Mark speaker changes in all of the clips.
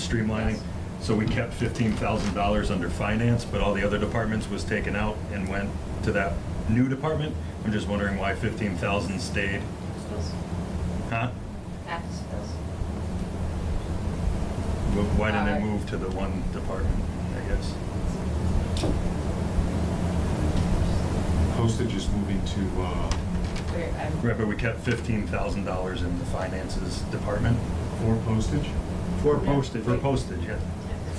Speaker 1: streamlining. So we kept fifteen thousand dollars under finance, but all the other departments was taken out and went to that new department. I'm just wondering why fifteen thousand stayed,
Speaker 2: Schools,
Speaker 1: huh?
Speaker 2: after schools.
Speaker 1: Wh- Why didn't
Speaker 2: Uh,
Speaker 1: it move to the one department, I guess?
Speaker 3: Postage is moving to, uh,
Speaker 2: Where I'm-
Speaker 1: Right, but we kept fifteen thousand dollars in the finances department
Speaker 3: for postage?
Speaker 4: Four
Speaker 2: postage.
Speaker 1: for postage, yeah.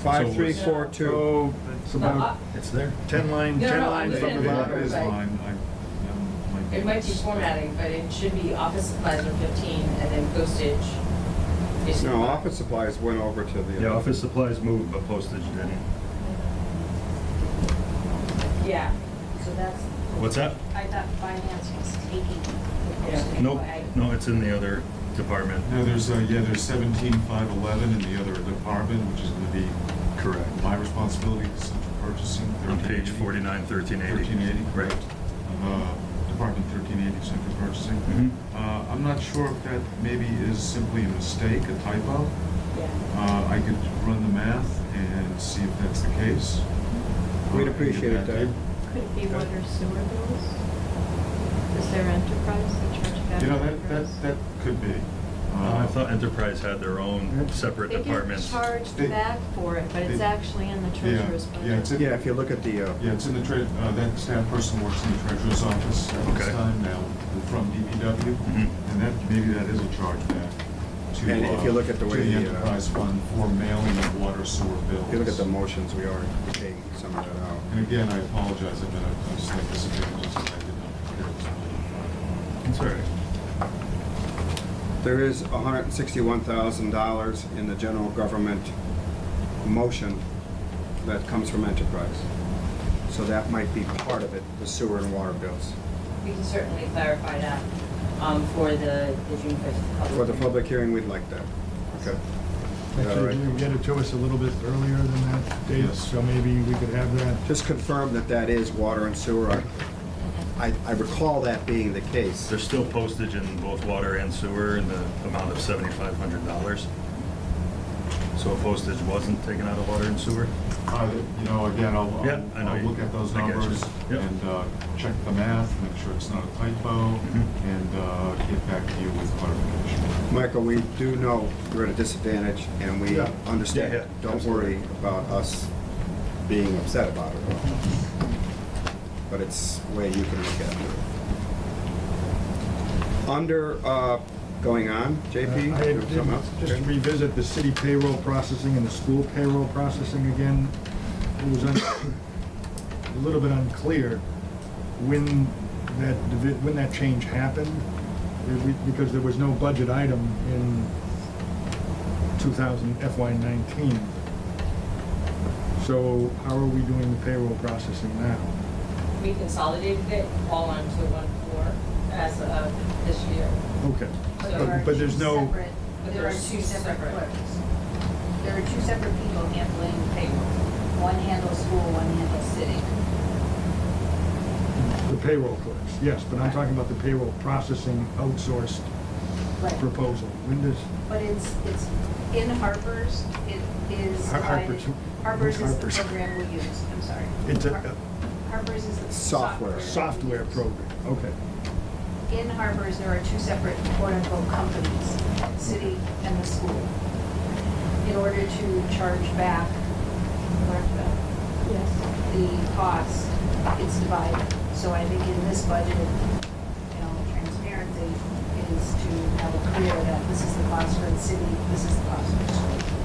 Speaker 4: Five, three,
Speaker 2: So-
Speaker 4: four, two.
Speaker 3: Oh, that's
Speaker 2: No,
Speaker 3: about,
Speaker 2: up.
Speaker 1: It's there.
Speaker 4: Ten line,
Speaker 2: No,
Speaker 4: ten
Speaker 2: no,
Speaker 4: lines
Speaker 2: I'm
Speaker 4: from the
Speaker 2: looking at
Speaker 3: that
Speaker 2: it.
Speaker 3: is
Speaker 4: bottom.
Speaker 3: mine, I, um, might be.
Speaker 2: It might be formatting, but it should be office supplies are fifteen and then postage is.
Speaker 5: No, office supplies went over to the.
Speaker 1: Yeah, office supplies moved, but postage didn't.
Speaker 2: Yeah,
Speaker 6: So that's,
Speaker 1: What's that?
Speaker 6: I thought finance was taking the posting.
Speaker 1: Nope,
Speaker 6: but I-
Speaker 1: no, it's in the other department.
Speaker 3: No, there's, uh, yeah, there's seventeen five eleven in the other department, which is gonna be
Speaker 1: Correct.
Speaker 3: my responsibility, central purchasing.
Speaker 1: On page
Speaker 3: 1380.
Speaker 1: forty-nine, thirteen eighty.
Speaker 3: Thirteen eighty,
Speaker 1: Right.
Speaker 3: correct. Uh, Department thirteen eighty, central purchasing.
Speaker 1: Mhm.
Speaker 3: Uh, I'm not sure if that maybe is simply a mistake, a typo.
Speaker 2: yeah.
Speaker 3: Uh, I could run the math and see if that's the case.
Speaker 4: We'd
Speaker 3: Uh,
Speaker 4: appreciate it,
Speaker 3: and get
Speaker 4: Dave.
Speaker 3: back
Speaker 6: Could it be water sewer bills? Is there enterprise that charge
Speaker 3: to
Speaker 6: that?
Speaker 3: You know, that, that, that could be.
Speaker 1: Uh, I thought Enterprise had their own separate
Speaker 6: They get
Speaker 1: departments.
Speaker 6: charged
Speaker 3: They-
Speaker 6: back for it, but it's
Speaker 3: they-
Speaker 6: actually in the
Speaker 3: Yeah,
Speaker 6: treasurer's budget.
Speaker 3: yeah, it's in,
Speaker 4: Yeah,
Speaker 3: yeah,
Speaker 4: if you look at the, uh,
Speaker 3: it's in the tre, uh, that staff person works in the treasurer's office at this
Speaker 1: Okay.
Speaker 3: time now, from DPW.
Speaker 1: Mhm.
Speaker 3: And that, maybe that is a charge back to.
Speaker 4: And if
Speaker 3: uh,
Speaker 4: you look at the way
Speaker 3: To
Speaker 4: the,
Speaker 3: the
Speaker 4: uh,
Speaker 3: enterprise fund for mailing of water sewer bills.
Speaker 4: if you look at the motions, we are taking some of that out.
Speaker 3: And again, I apologize, I've been a slight disadvantage, I did not prepare this. plan.
Speaker 1: It's all right.
Speaker 4: There is hundred and sixty-one thousand dollars in the general government motion that comes from enterprise. So that might be part of it, the sewer and water bills.
Speaker 2: We can certainly clarify that, um, for the, the June fifth public.
Speaker 4: For the
Speaker 2: hearing.
Speaker 4: public hearing, we'd like that. Okay.
Speaker 7: Actually, you can get it to us a little bit earlier than that date,
Speaker 3: Yes.
Speaker 7: so maybe we could have that
Speaker 4: Just confirm that that is water and sewer. I- I, I recall that being the case.
Speaker 1: There's still postage in both water and sewer in the amount of seventy-five hundred dollars. So postage wasn't taken out of water and sewer?
Speaker 3: Uh, You know, again, I'll,
Speaker 1: Yeah,
Speaker 3: I'll-
Speaker 1: I know
Speaker 3: I'll
Speaker 1: you-
Speaker 3: look at those
Speaker 1: I get you.
Speaker 3: numbers
Speaker 1: Yep.
Speaker 3: and uh, check the math, make sure it's not a typo,
Speaker 1: Mm-hmm.
Speaker 3: and uh, get back to you with clarification.
Speaker 4: Michael, we do know you're at a disadvantage and we
Speaker 7: Yeah.
Speaker 4: understand.
Speaker 1: Yeah, yeah.
Speaker 4: Don't worry about us being upset about it. at all. But it's the way you can look at it. Under, uh, going on, JP?
Speaker 7: Uh, I
Speaker 4: you have something else?
Speaker 7: did Just revisit the city payroll processing and the school payroll processing again. It was un- a little bit unclear when that, divi- when that change happened, if we- because there was no budget item in 2000 FY '19. So how are we doing the payroll processing now?
Speaker 2: We consolidated it all onto one floor as of this year.
Speaker 7: Okay.
Speaker 6: But
Speaker 2: So-
Speaker 6: there are
Speaker 7: But- but there's
Speaker 6: two
Speaker 7: no-
Speaker 6: separate-
Speaker 2: But
Speaker 6: There are two separate clerks. There are two separate people handling payroll. One handles school, one handles city.
Speaker 7: The payroll clerks, yes, but I'm talking about the payroll processing outsourced
Speaker 6: Right.
Speaker 7: proposal. When does,
Speaker 6: But it's, it's in Harper's, it is.
Speaker 7: Har- Harper's.
Speaker 6: divided- Harper's is the
Speaker 7: Harper's.
Speaker 6: program we use, I'm sorry.
Speaker 7: It's a-
Speaker 6: Har- Harper's is the
Speaker 4: Software.
Speaker 6: software. we
Speaker 7: software
Speaker 6: use.
Speaker 7: program, okay.
Speaker 6: In Harper's, there are two separate quote-unquote companies, city and the school, in order to charge back Martha, the cost, it's divided. So I think in this budget, you know, transparency is to have it clear that this is the cost for the city, this is the cost for the school.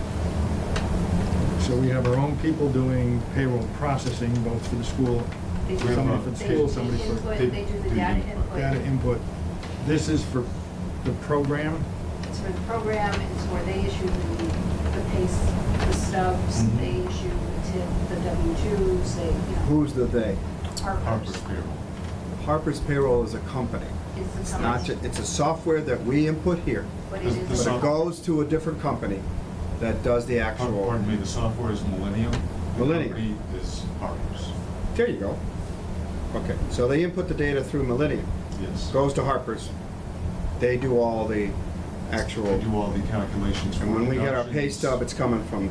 Speaker 7: So we have our own people doing payroll processing, both for the school,
Speaker 6: They do-
Speaker 7: somebody for the
Speaker 6: they-
Speaker 7: school, somebody
Speaker 6: They
Speaker 7: for
Speaker 6: input, they do the data input.
Speaker 7: data input. This is for the program,
Speaker 6: It's for the program, it's where they issue the, the pace, the stubs,
Speaker 3: Mhm.
Speaker 6: they issue the tip, the W-2s, they, you know,
Speaker 4: Who's the "they"?
Speaker 3: Harper's
Speaker 6: Harper's.
Speaker 3: payroll.
Speaker 4: Harper's Payroll is a company.
Speaker 6: It's the
Speaker 4: It's not, ju-
Speaker 6: company,
Speaker 4: it's a software that we input here,
Speaker 6: but it
Speaker 3: the- the
Speaker 6: is,
Speaker 4: but
Speaker 3: soft-
Speaker 4: it goes to a different company that does the actual.
Speaker 3: Pardon me, the software is Millennium. the
Speaker 4: Millennium.
Speaker 3: company is Harper's,
Speaker 4: There you go. Okay, so they input the data through Millennium,
Speaker 3: yes.
Speaker 4: goes to Harper's. They do all the
Speaker 3: They
Speaker 4: actual,
Speaker 3: do all the calculations. for
Speaker 4: and when we get our
Speaker 3: deductions.
Speaker 4: pay stub, it's coming from